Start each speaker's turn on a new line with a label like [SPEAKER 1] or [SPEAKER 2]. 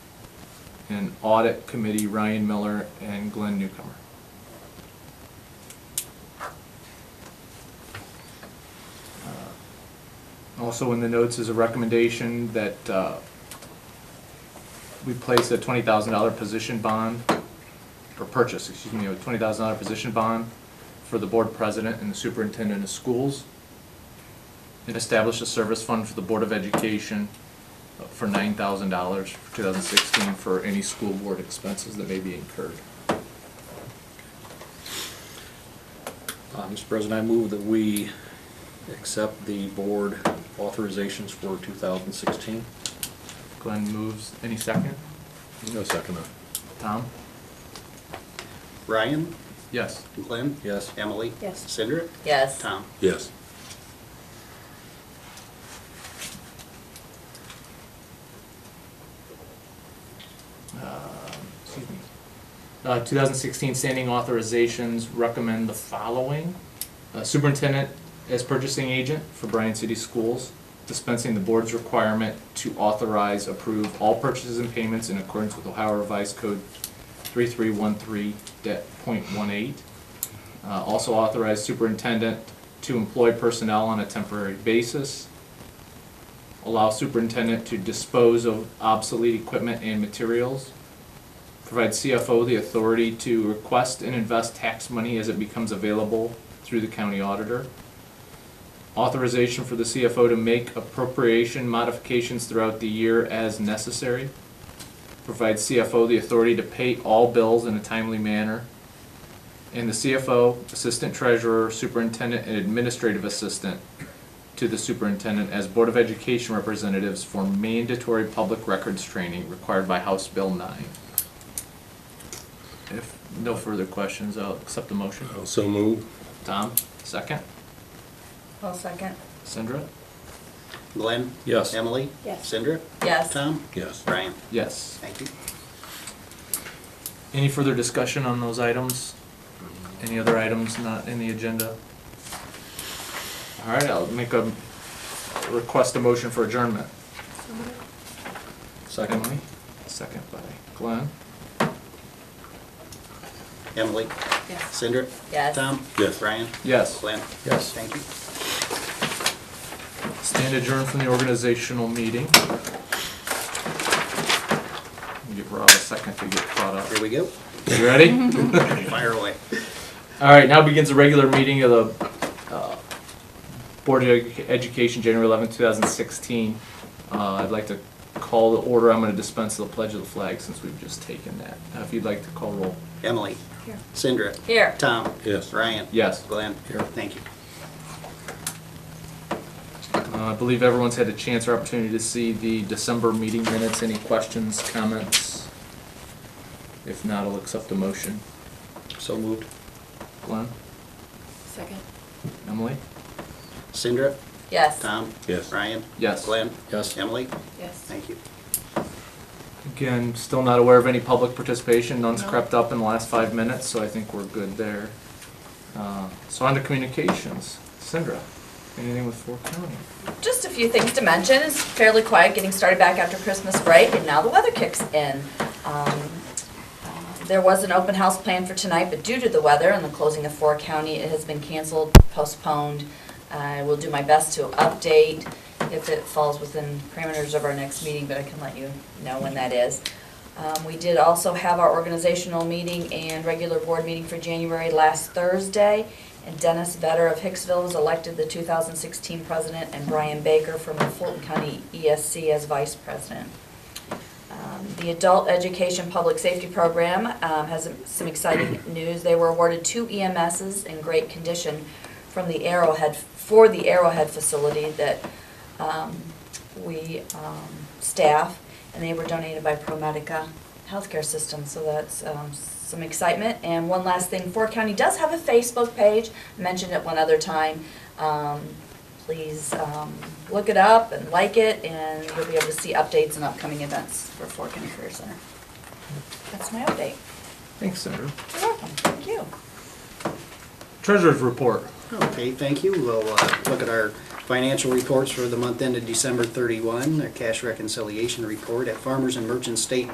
[SPEAKER 1] and Audit Committee, Ryan Miller and Glenn Newcomer. Uh, Also in the notes is a recommendation that uh, we place a twenty thousand dollar position bond, or purchase, excuse me, a twenty thousand dollar position bond for the board president and the superintendent of schools, and establish a service fund for the Board of Education uh, for nine thousand dollars for two thousand sixteen for any school board expenses that may be incurred.
[SPEAKER 2] Uh, Mr. President, I move that we accept the board authorizations for 2016.
[SPEAKER 1] Glenn moves, any second?
[SPEAKER 3] No second.
[SPEAKER 1] Tom?
[SPEAKER 4] Ryan,
[SPEAKER 1] Yes.
[SPEAKER 4] Glenn?
[SPEAKER 2] Yes.
[SPEAKER 4] Emily?
[SPEAKER 5] Yes.
[SPEAKER 4] Cindra?
[SPEAKER 5] Yes.
[SPEAKER 4] Tom?
[SPEAKER 3] Yes.
[SPEAKER 1] excuse me. Uh, 2016 standing authorizations recommend the following. Uh, Superintendent as purchasing agent for Bryan City Schools, dispensing the board's requirement to authorize, approve all purchases and payments in accordance with Ohio Revised Code 3313.18. Uh, Also authorize superintendent to employ personnel on a temporary basis allow superintendent to dispose of obsolete equipment and materials, provide CFO the authority to request and invest tax money as it becomes available through the county auditor, authorization for the CFO to make appropriation modifications throughout the year as necessary, provide CFO the authority to pay all bills in a timely manner, and the CFO, assistant treasurer, superintendent, and administrative assistant to the superintendent as Board of Education representatives for mandatory public records training required by House Bill 9. If no further questions, I'll accept the motion.
[SPEAKER 3] Also move.
[SPEAKER 1] Tom, second.
[SPEAKER 5] I'll second.
[SPEAKER 1] Sandra?
[SPEAKER 4] Glenn?
[SPEAKER 2] Yes.
[SPEAKER 4] Emily?
[SPEAKER 5] Yes.
[SPEAKER 4] Cindra?
[SPEAKER 5] Yes.
[SPEAKER 4] Tom?
[SPEAKER 3] Yes.
[SPEAKER 4] Ryan?
[SPEAKER 1] Yes.
[SPEAKER 4] Thank you.
[SPEAKER 1] Any further discussion on those items? Any other items not in the agenda? All right, I'll make a, request a motion for adjournment.
[SPEAKER 2] Second.
[SPEAKER 1] Emily? Second by Glenn.
[SPEAKER 4] Emily?
[SPEAKER 5] Yes.
[SPEAKER 4] Cindra?
[SPEAKER 5] Yes.
[SPEAKER 4] Tom?
[SPEAKER 3] Yes.
[SPEAKER 4] Ryan?
[SPEAKER 1] Yes.
[SPEAKER 4] Glenn?
[SPEAKER 2] Yes.
[SPEAKER 4] Thank you.
[SPEAKER 1] Stand adjourned from the organizational meeting. Give Rob a second to get caught up.
[SPEAKER 4] Here we go.
[SPEAKER 1] You ready?
[SPEAKER 4] Fire away.
[SPEAKER 1] All right, now begins the regular meeting of the uh, Board of Edu- Education, January 11, 2016. Uh, I'd like to call the order, I'm going to dispense the pledge of the flag since we've just taken that. Uh, If you'd like to call roll.
[SPEAKER 4] Emily?
[SPEAKER 5] Here.
[SPEAKER 4] Cindra?
[SPEAKER 5] Here.
[SPEAKER 4] Tom?
[SPEAKER 3] Yes.
[SPEAKER 4] Ryan?
[SPEAKER 1] Yes.
[SPEAKER 4] Glenn?
[SPEAKER 2] Here.
[SPEAKER 4] Thank you.
[SPEAKER 1] Uh, I believe everyone's had a chance or opportunity to see the December meeting minutes. Any questions, comments? If not, I'll accept the motion.
[SPEAKER 2] So moved.
[SPEAKER 1] Glenn?
[SPEAKER 5] Second.
[SPEAKER 1] Emily?
[SPEAKER 4] Cindra?
[SPEAKER 5] Yes.
[SPEAKER 4] Tom?
[SPEAKER 3] Yes.
[SPEAKER 4] Ryan?
[SPEAKER 1] Yes.
[SPEAKER 4] Glenn?
[SPEAKER 2] Yes.
[SPEAKER 4] Emily?
[SPEAKER 5] Yes.
[SPEAKER 4] Thank you.
[SPEAKER 1] Again, still not aware of any public participation, none's crept up in the last five minutes, so I think we're good there. Uh, So on to communications, Sandra, anything with Fort County?
[SPEAKER 6] Just a few things to mention. It's fairly quiet getting started back after Christmas break, and now the weather kicks in. Um, uh, There was an open house planned for tonight, but due to the weather and the closing of Four County, it has been canceled, postponed. I will do my best to update if it falls within parameters of our next meeting, but I can let you know when that is. Um, We did also have our organizational meeting and regular board meeting for January last Thursday. And Dennis Vetter of Hicksville was elected the 2016 president and Brian Baker from the Fulton County ESC as vice president. Um, The Adult Education Public Safety Program um, has some exciting news. They were awarded two EMSs in great condition from the Arrowhead, for the Arrowhead facility that um, we um, staff, and they were donated by ProMedica Healthcare System, so that's um, some excitement. And one last thing, Fort County does have a Facebook page, mentioned it one other time. Um, Please um, look it up and like it, and you'll be able to see updates and upcoming events for Fort County Career Center. That's my update.
[SPEAKER 1] Thanks, Sandra.
[SPEAKER 6] You're welcome, thank you.
[SPEAKER 1] Treasurer's report.
[SPEAKER 4] Okay, thank you. We'll uh, look at our financial reports for the month ended December 31, a cash reconciliation report at Farmers and Merchants State